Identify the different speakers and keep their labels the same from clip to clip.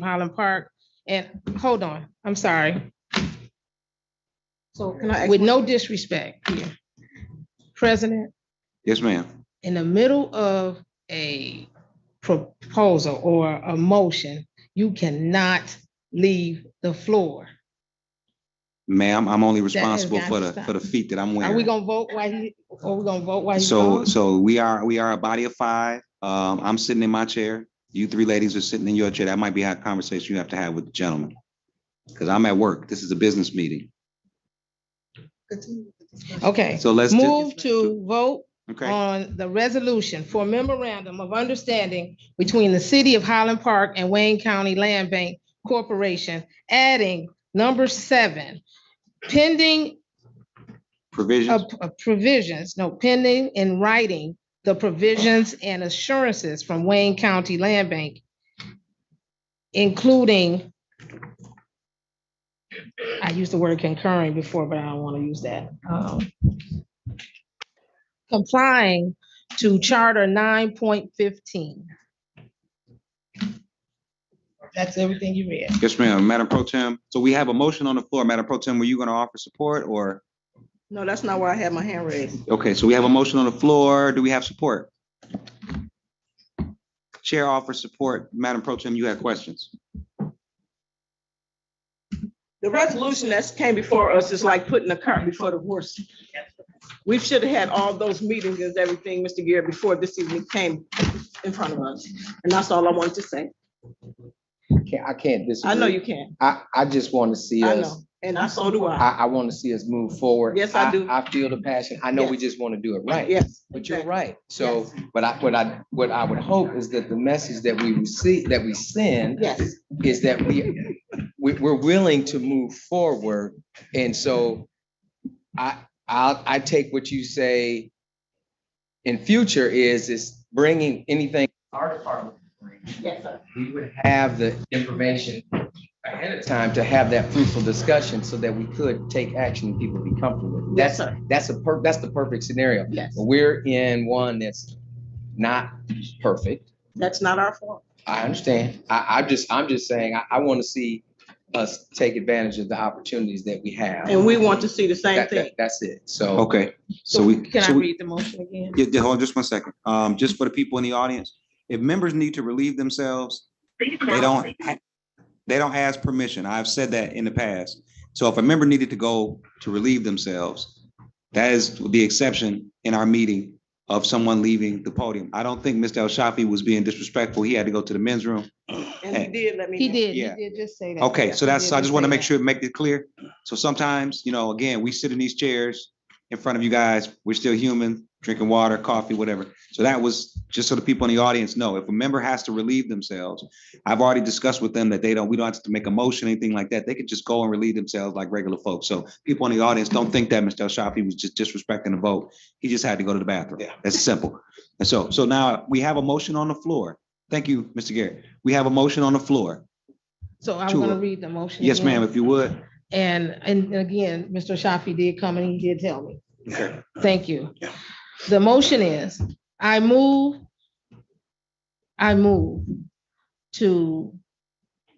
Speaker 1: Highland Park. And, hold on, I'm sorry. So
Speaker 2: Can I ask
Speaker 1: with no disrespect here. President,
Speaker 3: Yes, ma'am.
Speaker 1: in the middle of a proposal or a motion, you cannot leave the floor.
Speaker 3: Ma'am, I'm only
Speaker 1: has
Speaker 3: responsible
Speaker 1: got to
Speaker 3: for the,
Speaker 1: stop.
Speaker 3: for the feet that I'm
Speaker 1: Are we
Speaker 3: wearing.
Speaker 1: gonna vote while he, are we gonna vote while he's
Speaker 3: So,
Speaker 1: gone?
Speaker 3: so we are, we are a body of five. Um, I'm sitting in my chair. You three ladies are sitting in your chair. That might be a conversation you have to have with the gentleman. Because I'm at work. This is a business meeting.
Speaker 2: Continue with the discussion.
Speaker 1: Okay,
Speaker 3: So let's. just-
Speaker 1: move to vote
Speaker 3: Okay,
Speaker 1: on the resolution for memorandum of understanding between the city of Highland Park and Wayne County Land Bank Corporation, adding number seven, pending
Speaker 3: provisions.
Speaker 1: of of provisions, no, pending in writing the provisions and assurances from Wayne County Land Bank, including, I used the word concurring before, but I don't want to use that. um, Complying to Charter nine point fifteen. That's everything you read.
Speaker 3: Yes, ma'am. Madam Pro Tem, so we have a motion on the floor. Madam Pro Tem, were you going to offer support or?
Speaker 2: No, that's not why I had my hand raised.
Speaker 3: Okay, so we have a motion on the floor. Do we have support? Chair offers support. Madam Pro Tem, you have questions?
Speaker 2: The resolution that's came before us is like putting the cart before the horse. We should have had all those meetings and everything, Mr. Gear, before this evening came in front of us. And that's all I wanted to say.
Speaker 4: Can't- I can't disagree.
Speaker 2: I know you can.
Speaker 4: I, I just want to see
Speaker 2: I
Speaker 4: us,
Speaker 2: know. And I, so do I.
Speaker 4: I, I want to see us move forward.
Speaker 2: Yes, I do.
Speaker 4: I feel the passion. I know we
Speaker 2: Yes.
Speaker 4: just want to do it right,
Speaker 2: Yes.
Speaker 4: but you're
Speaker 2: exactly.
Speaker 4: right. So, but I, what I, what I would hope is that the message that we receive, that we send
Speaker 2: Yes.
Speaker 4: is that we, we, we're willing to move forward. And so I, I'll, I take what you say in future is, is bringing anything our department can bring
Speaker 2: Yes, sir.
Speaker 4: we would have the information ahead of time to have that fruitful discussion so that we could take action and people be comfortable with. it.
Speaker 2: Yes,
Speaker 4: That's,
Speaker 2: sir.
Speaker 4: that's a per, that's the perfect scenario.
Speaker 2: Yes.
Speaker 4: We're in one that's not perfect.
Speaker 2: That's not our fault.
Speaker 4: I understand. I, I just, I'm just saying, I, I want to see us take advantage of the opportunities that we have.
Speaker 2: And we want to see the same
Speaker 4: That-
Speaker 2: thing.
Speaker 4: that- That's it. So
Speaker 3: Okay, so we.
Speaker 1: Can I
Speaker 3: so we-
Speaker 1: read the motion again?
Speaker 3: Yeah, yeah, hold on just one second. Um, just for the people in the audience, if members need to relieve themselves, they don't, ha- they don't ask permission. I've said that in the past. So if a member needed to go to relieve themselves, that is the exception in our meeting of someone leaving the podium. I don't think Mr. El Shafi was being disrespectful. He had to go to the men's room.
Speaker 2: And he did let me know.
Speaker 1: He did, he
Speaker 3: Yeah.
Speaker 1: did just say that.
Speaker 3: Okay, so
Speaker 1: He
Speaker 3: that's,
Speaker 1: did
Speaker 3: so I
Speaker 1: just
Speaker 3: just want to
Speaker 1: say
Speaker 3: make
Speaker 1: that.
Speaker 3: sure, make it clear. So sometimes, you know, again, we sit in these chairs in front of you guys. We're still human, drinking water, coffee, whatever. So that was just so the people in the audience know, if a member has to relieve themselves, I've already discussed with them that they don't, we don't have to make a motion, anything like that. They could just go and relieve themselves like regular folks. So people in the audience, don't think that Mr. El Shafi was just disrespecting the vote. He just had to go to the bathroom. Yeah. That's simple. And so, so now we have a motion on the floor. Thank you, Mr. Garrett. We have a motion on the floor.
Speaker 1: So I'm gonna
Speaker 3: Sure.
Speaker 1: read the motion.
Speaker 3: Yes,
Speaker 1: again.
Speaker 3: ma'am, if you would.
Speaker 1: And, and again, Mr. Shafi did come and he did tell me. Thank you. The motion is, I move, I move to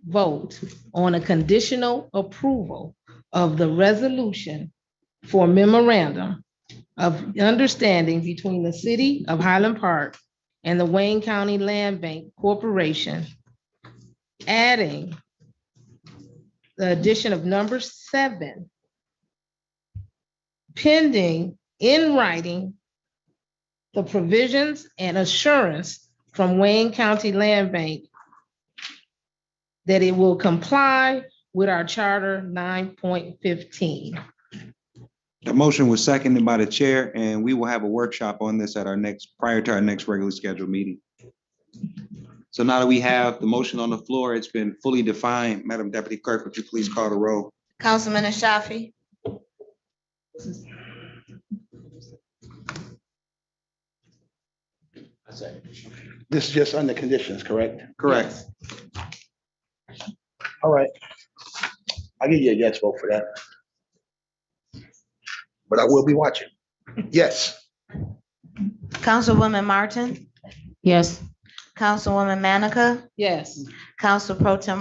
Speaker 1: vote on a conditional approval of the resolution for memorandum of understanding between the city of Highland Park and the Wayne County Land Bank Corporation, adding the addition of number seven. Pending in writing the provisions and assurance from Wayne County Land Bank that it will comply with our charter nine point fifteen.
Speaker 3: The motion was seconded by the chair, and we will have a workshop on this at our next, prior to our next regularly scheduled meeting. So now that we have the motion on the floor, it's been fully defined. Madam Deputy Clerk, would you please call the roll?
Speaker 5: Councilman Ashafi,
Speaker 6: This is just under conditions, correct?
Speaker 3: Correct.
Speaker 6: All right. I'll give you a yes vote for that. But I will be watching. Yes.
Speaker 5: Councilwoman Martin,
Speaker 1: Yes.
Speaker 5: Councilwoman Manica,
Speaker 1: Yes.
Speaker 5: Council Pro Tem